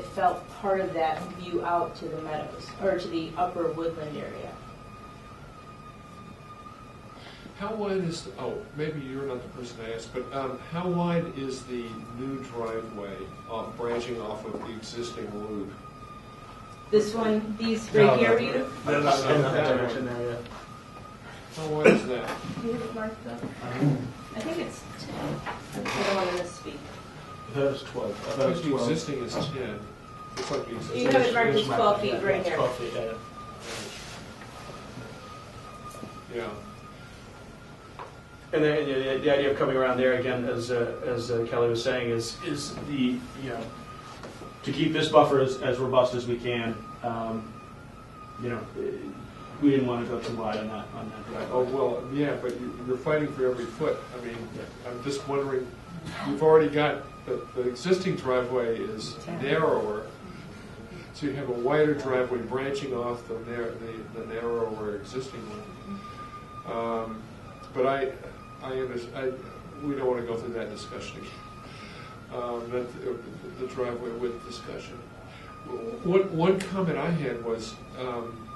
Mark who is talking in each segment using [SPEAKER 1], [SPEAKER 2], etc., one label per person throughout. [SPEAKER 1] It felt part of that view out to the meadows, or to the upper woodland area.
[SPEAKER 2] How wide is, oh, maybe you're not the person to ask, but um, how wide is the new driveway off, branching off of the existing loop?
[SPEAKER 1] This one, these right here, you,
[SPEAKER 3] They're not in that direction there yet.
[SPEAKER 2] How wide is that?
[SPEAKER 1] you have it marked up? I think it's ten. I don't want to misspeak.
[SPEAKER 3] That was twelve. I thought
[SPEAKER 2] Because
[SPEAKER 3] it was
[SPEAKER 2] the
[SPEAKER 3] twelve.
[SPEAKER 2] existing is 10. Looks like the
[SPEAKER 1] You
[SPEAKER 2] existing.
[SPEAKER 1] have it marked as
[SPEAKER 3] It's
[SPEAKER 1] 12 feet
[SPEAKER 3] yeah,
[SPEAKER 1] right here.
[SPEAKER 3] Twelve feet, yeah, yeah.
[SPEAKER 2] Yeah.
[SPEAKER 3] And the, the, the idea of coming around there again, as, uh, as uh, Kelly was saying, is, is the, you know, to keep this buffer as, as robust as we can, um, you know, eh, we didn't want to go too wide on that, on that
[SPEAKER 2] Oh,
[SPEAKER 3] driveway.
[SPEAKER 2] well, yeah, but you- you're fighting for every foot. I mean, I'm just wondering, you've already got, the, the existing driveway is narrower, so you have a wider driveway branching off the nar, the, the narrower existing one. Um, But I, I understand, I, we don't want to go through that discussion again. Um, that, the driveway width discussion. One, one comment I had was, um,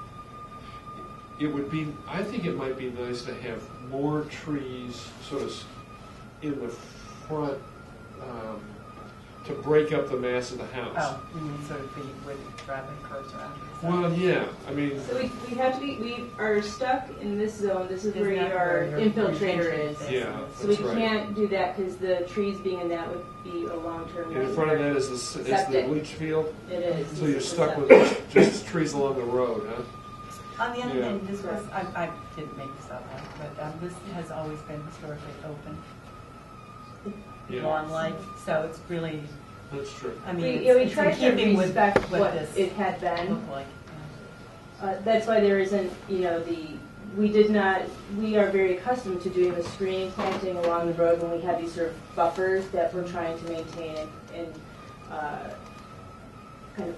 [SPEAKER 2] it would be, I think it might be nice to have more trees sort of s- in the front um, to break up the mass of the house.
[SPEAKER 4] Oh, you mean sort of the way the driveway curves around? and stuff.
[SPEAKER 2] Well, yeah, I mean,
[SPEAKER 1] So we, we have to be, we are stuck in this zone, this is
[SPEAKER 4] Isn't
[SPEAKER 1] where
[SPEAKER 4] that
[SPEAKER 1] your
[SPEAKER 4] where your
[SPEAKER 1] infiltrator is.
[SPEAKER 4] infiltrator
[SPEAKER 2] yeah,
[SPEAKER 1] So we
[SPEAKER 2] that's right.
[SPEAKER 1] can't do that because the trees being in that would be a long-term.
[SPEAKER 2] And in front of that is the, s- is the
[SPEAKER 1] Septic.
[SPEAKER 2] leach field,
[SPEAKER 1] It is.
[SPEAKER 2] so you're
[SPEAKER 1] It's
[SPEAKER 2] stuck
[SPEAKER 1] a-
[SPEAKER 2] with just trees along the road, huh?
[SPEAKER 4] On the other
[SPEAKER 2] Yeah.
[SPEAKER 4] hand, this was, I, I didn't make this up, but um, this has always been historically open,
[SPEAKER 2] Yeah,
[SPEAKER 4] lawn like, so it's really,
[SPEAKER 2] that's true.
[SPEAKER 4] I mean,
[SPEAKER 1] We,
[SPEAKER 4] it's
[SPEAKER 1] yeah, we
[SPEAKER 4] it's
[SPEAKER 1] tried
[SPEAKER 4] in
[SPEAKER 1] to
[SPEAKER 4] keeping with
[SPEAKER 1] respect
[SPEAKER 4] what
[SPEAKER 1] what it
[SPEAKER 4] this
[SPEAKER 1] had been.
[SPEAKER 4] looked like.
[SPEAKER 1] Uh, that's why there isn't, you know, the, we did not, we are very accustomed to doing the screening planting along the road when we have these sort of buffers that we're trying to maintain and, and uh, kind of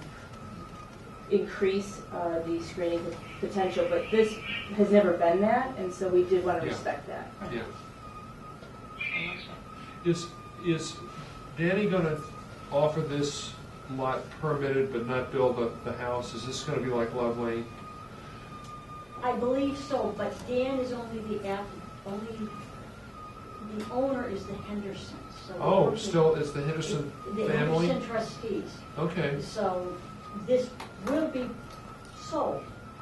[SPEAKER 1] increase uh, the screening pot- potential, but this has never been that, and so we did want to
[SPEAKER 2] Yeah.
[SPEAKER 1] respect that.
[SPEAKER 2] Yeah. Is, is Danny gonna offer this lot permitted but not build the, the house? Is this gonna be like Love Lane?
[SPEAKER 5] I believe so, but Dan is only the app, only, the owner is the Hendersons. so the
[SPEAKER 2] Oh,
[SPEAKER 5] person-
[SPEAKER 2] still, it's the Henderson
[SPEAKER 5] The
[SPEAKER 2] family?
[SPEAKER 5] Henderson trustees,
[SPEAKER 2] Okay,
[SPEAKER 5] so this will be sold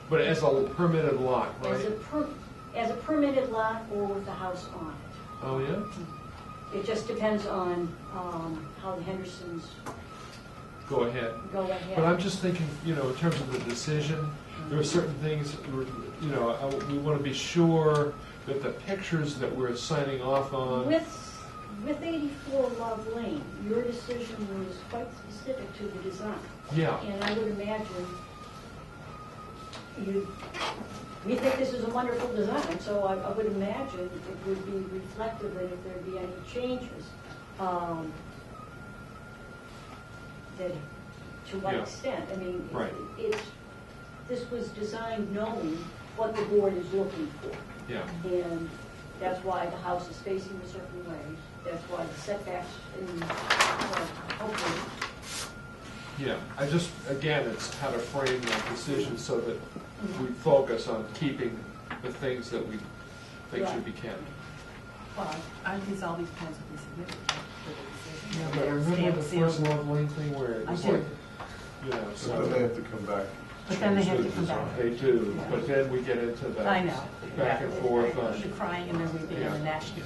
[SPEAKER 2] but as a permitted lot,
[SPEAKER 5] as a
[SPEAKER 2] right?
[SPEAKER 5] per, as a permitted lot or with a house on it.
[SPEAKER 2] Oh, yeah?
[SPEAKER 5] It just depends on, um, how the Hendersons
[SPEAKER 2] Go ahead.
[SPEAKER 5] go
[SPEAKER 2] But I'm
[SPEAKER 5] ahead.
[SPEAKER 2] just thinking, you know, in terms of the decision, there are certain things, we're- you know, I- we want to be sure that the pictures that we're signing off on,
[SPEAKER 5] With, with eighty-four Love Lane, your decision was quite specific to the design.
[SPEAKER 2] yeah,
[SPEAKER 5] And I would imagine you, we think this is a wonderful design, so I, I would imagine it would be reflective and if there'd be any changes, um, that, to what
[SPEAKER 2] Yeah.
[SPEAKER 5] extent, I mean,
[SPEAKER 2] Right.
[SPEAKER 5] it's, this was designed knowing what the board is looking for.
[SPEAKER 2] yeah,
[SPEAKER 5] And that's why the house is facing a certain way, that's why the setbacks in, uh, hopefully,
[SPEAKER 2] yeah. I just, again, it's how to frame that decision so that we focus on keeping the things that we think should be kept.
[SPEAKER 4] Well, I think all these plans would be submitted for the
[SPEAKER 2] But
[SPEAKER 4] decision. They're
[SPEAKER 2] remember the
[SPEAKER 4] stamped, sealed.
[SPEAKER 2] first Love Lane thing where it
[SPEAKER 4] I
[SPEAKER 2] was
[SPEAKER 4] do.
[SPEAKER 2] like, you know,
[SPEAKER 6] So then they
[SPEAKER 2] so
[SPEAKER 6] have to come back.
[SPEAKER 4] But then they have to come back.
[SPEAKER 2] they do, but then we get into the
[SPEAKER 4] I know.
[SPEAKER 2] back and forth on.
[SPEAKER 4] The crying and then we did
[SPEAKER 2] Yeah.
[SPEAKER 4] the national.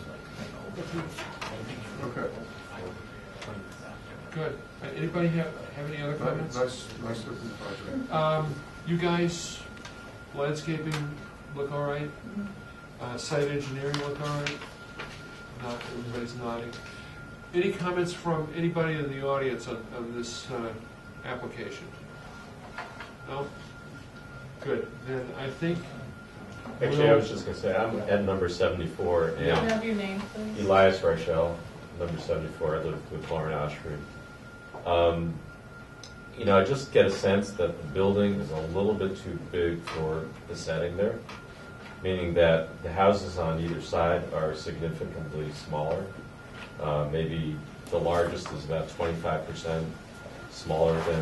[SPEAKER 6] Okay.
[SPEAKER 2] Good. Anybody have, have any other
[SPEAKER 6] Nice,
[SPEAKER 2] comments?
[SPEAKER 6] nice looking project.
[SPEAKER 2] Um, you guys, landscaping look all right? Uh, site engineering look all right? Not, everybody's nodding. Any comments from anybody in the audience on, on this, uh, application? No? Good, then I think.
[SPEAKER 7] Actually, I was just gonna say, I'm at number seventy-four, and
[SPEAKER 4] have your name, please?
[SPEAKER 7] Elias Rochelle, number seventy-four, I live with Lauren Oshry. Um, You know, I just get a sense that the building is a little bit too big for the setting there, meaning that the houses on either side are significantly smaller. Uh, Maybe the largest is about twenty-five percent smaller than